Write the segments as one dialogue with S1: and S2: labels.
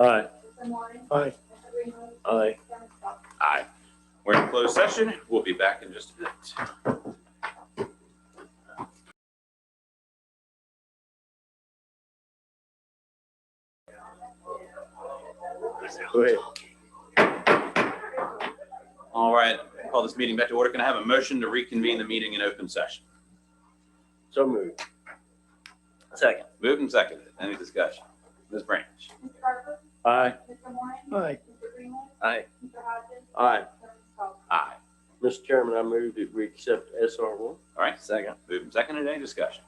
S1: Aye.
S2: Tim Lawrence,
S1: Aye.
S2: Mr. Greenwood,
S1: Aye.
S2: Dennis Cobb.
S3: Aye. We're in closed session. We'll be back in just a minute.
S1: Wait.
S3: All right, call this meeting back to order. Can I have a motion to reconvene the meeting in open session?
S1: So moved. Second.
S3: Moved and seconded. Any discussion? Ms. Branch?
S2: Mr. Harper,
S1: Aye.
S2: Mr. Lawrence,
S1: Aye.
S2: Mr. Greenwood,
S1: Aye.
S2: Mr. Hodges,
S1: Aye.
S2: Dennis Cobb.
S3: Aye.
S1: Mr. Chairman, I move that we accept SR one.
S3: All right,
S1: Second.
S3: moved and seconded. Any discussion?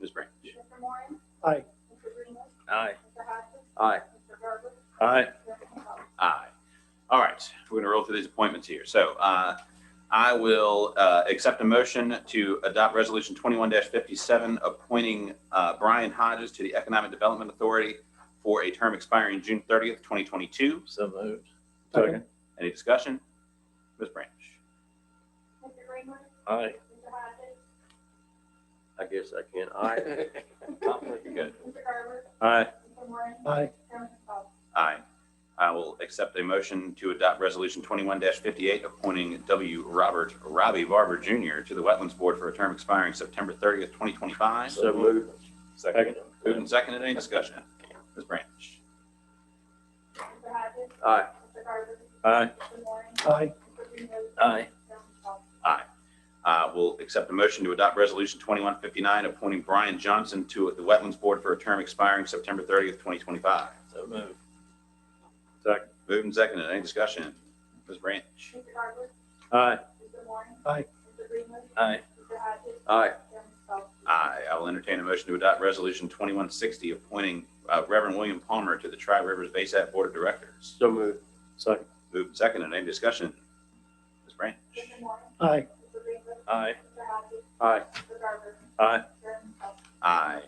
S3: Ms. Branch?
S2: Mr. Lawrence.
S1: Aye.
S2: Mr. Greenwood,
S1: Aye.
S2: Mr. Hodges,
S1: Aye.
S2: Mr. Garber,
S1: Aye.
S2: Dennis Cobb.
S3: Aye. All right, we're going to roll through these appointments here. So uh, I will uh, accept a motion to adopt Resolution 21-57, appointing uh, Brian Hodges to the Economic Development Authority for a term expiring June 30th, 2022.
S1: So moved. Second.
S3: Any discussion? Ms. Branch?
S2: Mr. Greenwood,
S1: Aye.
S2: Mr. Hodges,
S1: I guess I can. Aye.
S3: Good.
S2: Mr. Garber,
S1: Aye.
S2: Mr. Lawrence,
S1: Aye.
S2: Dennis Cobb.
S3: Aye. I will accept a motion to adopt Resolution 21-58, appointing W. Robert Robbie Barber Jr. to the Wetlands Board for a term expiring September 30th, 2025.
S1: So moved. Second.
S3: Moved and seconded. Any discussion? Ms. Branch?
S2: Mr. Hodges,
S1: Aye.
S2: Mr. Garber,
S1: Aye.
S2: Mr. Lawrence,
S1: Aye.
S2: Mr. Greenwood,
S1: Aye.
S2: Dennis Cobb.
S3: Uh, Will accept a motion to adopt Resolution 2159, appointing Brian Johnson to the Wetlands Board for a term expiring September 30th, 2025.
S1: So moved. Second.
S3: Moved and seconded. Any discussion? Ms. Branch?
S2: Mr. Garber,
S1: Aye.
S2: Mr. Lawrence.
S1: Aye.
S2: Mr. Greenwood,
S1: Aye.
S2: Mr. Hodges,
S1: Aye.
S2: Dennis Cobb.
S3: Aye. I will entertain a motion to adopt Resolution 2160, appointing uh, Reverend William Palmer to the Tri Rivers Bayside Board of Directors.
S1: So moved. Second.
S3: Moved and seconded. Any discussion? Ms. Branch?
S2: Mr. Lawrence,
S1: Aye.
S2: Mr. Greenwood,
S1: Aye.
S2: Mr. Hodges,
S1: Aye.
S2: Mr. Garber,
S1: Aye.
S2: Dennis Cobb.
S3: Aye.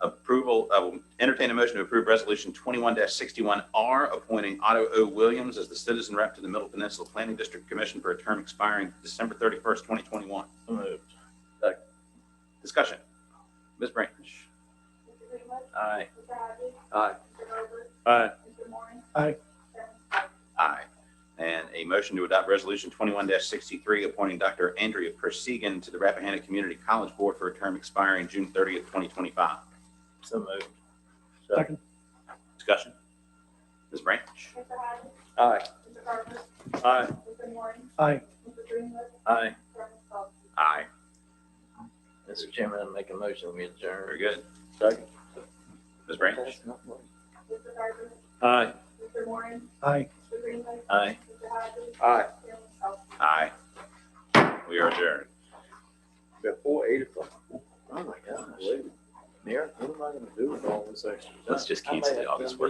S3: Approval, I will entertain a motion to approve Resolution 21-61R, appointing Otto O. Williams as the citizen rep to the Middle Peninsula Planning District Commission for a term expiring December 31st, 2021.
S1: So moved.
S3: Discussion. Ms. Branch?
S2: Mr. Greenwood,
S1: Aye.
S2: Mr. Hodges,
S1: Aye.
S2: Mr. Garber,
S1: Aye.
S2: Mr. Lawrence.
S1: Aye.
S2: Dennis Cobb.
S3: Aye. And a motion to adopt Resolution 21-63, appointing Dr. Andrea Persigan to the Rappahannock Community College Board for a term expiring June 30th, 2025.
S1: So moved.
S3: Discussion. Ms. Branch?
S2: Mr. Hodges,
S1: Aye.
S2: Mr. Garber,
S1: Aye.
S2: Mr. Lawrence.
S1: Aye.
S2: Mr. Greenwood,
S1: Aye.
S2: Dennis Cobb.
S3: Aye.
S4: Mr. Chairman, I make a motion, we adjourn.
S3: Very good.
S1: Second.
S3: Ms. Branch?
S2: Mr. Garber,
S1: Aye.
S2: Mr. Lawrence,
S1: Aye.
S2: Mr. Greenwood,
S4: Aye.
S2: Mr. Hodges,
S1: Aye.
S2: Dennis Cobb.
S3: Aye. We are adjourned.
S1: Before eight o'clock.
S4: Oh, my gosh.
S1: Believe it.
S4: Mayor, what am I gonna do with all this extra?
S1: Let's
S4: just
S1: cancel the August work